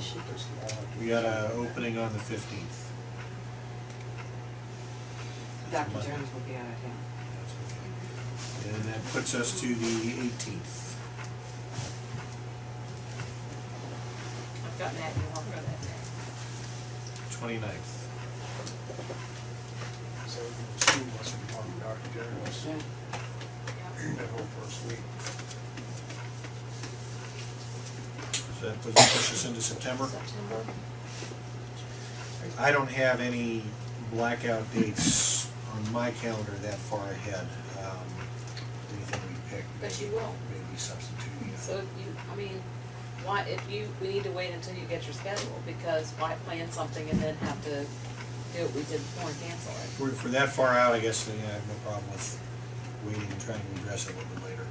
she just wanted We got a opening on the fifteenth. Dr. Jones will be out of town. And that puts us to the eighteenth. I've gotten that, and I'll throw that there. Twenty-ninth. to- So the two of us were talking to Dr. Jones Yeah. that whole first week. So that puts us into September. September. I don't have any blackout dates on my calendar that far ahead. Um, Anything we pick. But you will. Maybe substituting. it. So if you, I mean, why, if you, we need to wait until you get your schedule, because why plan something and then have to do what we did before and cancel it? If we're- if we're that far out, I guess, then yeah, I have no problem with waiting and trying to address it a little bit later.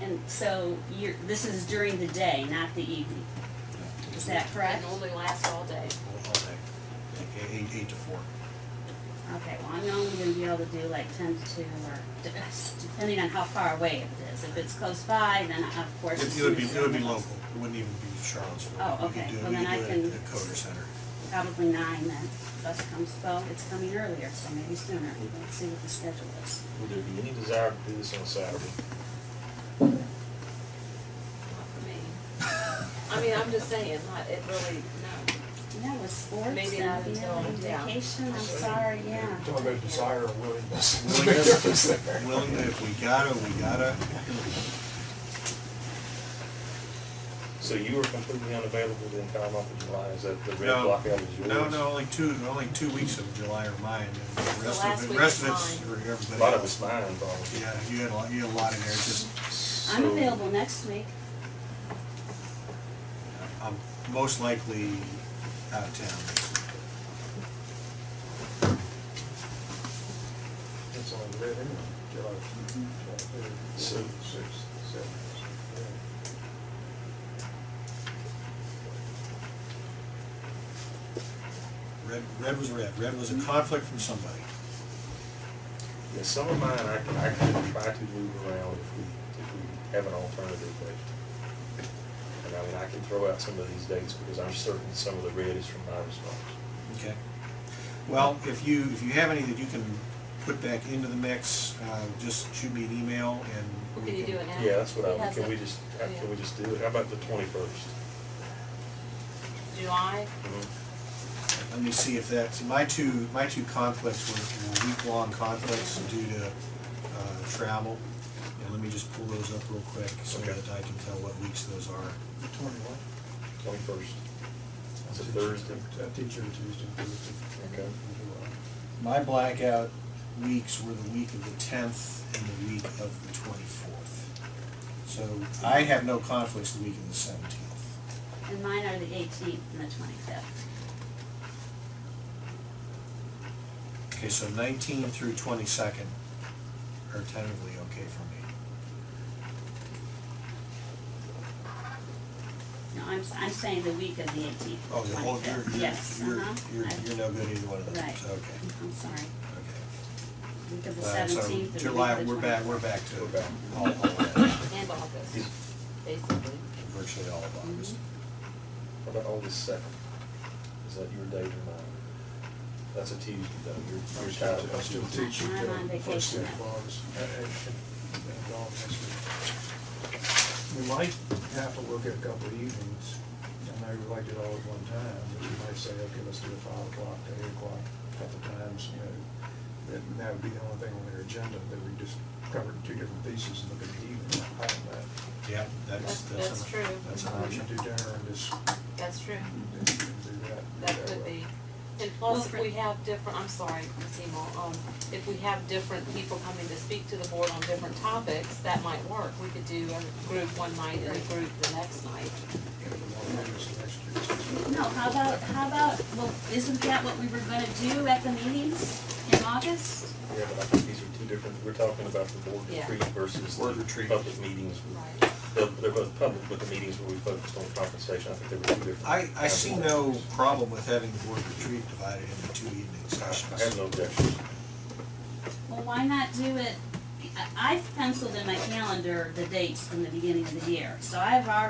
And so you're, this is during the day, not the evening, is that It correct? normally lasts all day. All all day, like eight, eight to four. Okay, well, I'm only gonna be able to do like ten to two, or de- depending on how far away it is. If it's close by, then of course. as It it would be, soon as it would be I'm- local, it wouldn't even be Charlottesville. Oh, We could okay. do it- Well, we then could I do it can- At the Coder Center. Probably nine then, bus comes twelve, it's coming earlier, so maybe sooner, let's see what the schedule is. Would there be any desire to do this on Saturday? Not for me. I mean, I'm just saying, not, it really, no. Yeah, with sports, Maybe uh, yeah, not until- yeah. vacation, I'm sorry, yeah. Talking about desire or willingness. Willingness. Willing, to- if we gotta, we gotta. So you were completely unavailable the entire month of July, is that the red No. blackout is yours? No, no, only two, only two weeks of July are mine, and the rest last of, the week rest of is it's mine. for A everybody lot of else. it's mine, Bob. Yeah, you had a lot, you had a lot in there, just, I'm So- available next week, I'm most likely out of town. It's on the red anyway, July twenty-third, So- sixth, seventh. Red, red was red, red Mm-hmm. was a conflict from somebody. Yeah, some of mine, I can, I can try to move around if we, if we have an alternative, but, and I mean, I can throw out some of these dates, because I'm certain some of the red is from my response. Okay. Well, if you, if you have any that you can put back into the mix, uh, just shoot me an email and. Well, we can you do it now? Yeah, that's what He I, has can it. we just, Yeah. can we just do it, how about the twenty-first? July, Mm-hmm. Let me see if that's, my two, my two conflicts were were week-long conflicts due to uh, travel. And let me just pull those up real quick so Okay. that I can tell what weeks those are. Twenty-one? Twenty-first, It's a Thursday. I teach you Tuesday, Thursday. Okay. My blackout weeks were the week of the tenth and the week of the twenty-fourth. So I have no conflicts the week of the seventeenth. and mine are the eighteenth and the twenty-fifth. Okay, so nineteen through twenty-second are tentatively okay for me. No, I'm, I'm saying the week of the eighteenth. Oh, the whole, you're, you're, Yes, you're, uh-huh. you're, I- you're no good either one of those, Right. so, okay, I'm sorry, okay. week of the Uh, seventeenth. So July, we're back, we're back to We're back. all, all of that, and August, basically. virtually all of August. What about August second? Is that your date or mine? That's a Tuesday though, you're, you're tired I still teach you. I'm till on the uh, first vacation. day of August, uh, and- and- and all next week. We might have to look at a couple of evenings, and maybe like it all at one time, but you might say, okay, let's do a five o'clock to eight o'clock, a couple times, you know. That, and that would be the only thing on their agenda, that we just covered two different pieces and look at the evening, I don't know. Mm-hmm. Yeah, that's, that's. That's- that's an- true. That's an Uh, You option. do dinner and just, That's true. and do that. That could be. And plus, if Wilfred. we have different, I'm sorry, Ms. Emo, um, if we have different people coming to speak to the board on different topics, that might work. We could do a group one night and a group the next night. No, how about, how about, well, isn't that what we were gonna do at the meetings in August? Yeah, but I think these are two different, we're talking about the board Yeah. retreat versus Board the retreat. public meetings. Right. They're, they're both public, but the meetings where we focused on compensation, I think they were two different. I, I see no problem with having the board retreat divided into two evening I have sessions. no objection. Well, why not do it, I, I've penciled in my calendar the dates from the beginning of the year, so I've already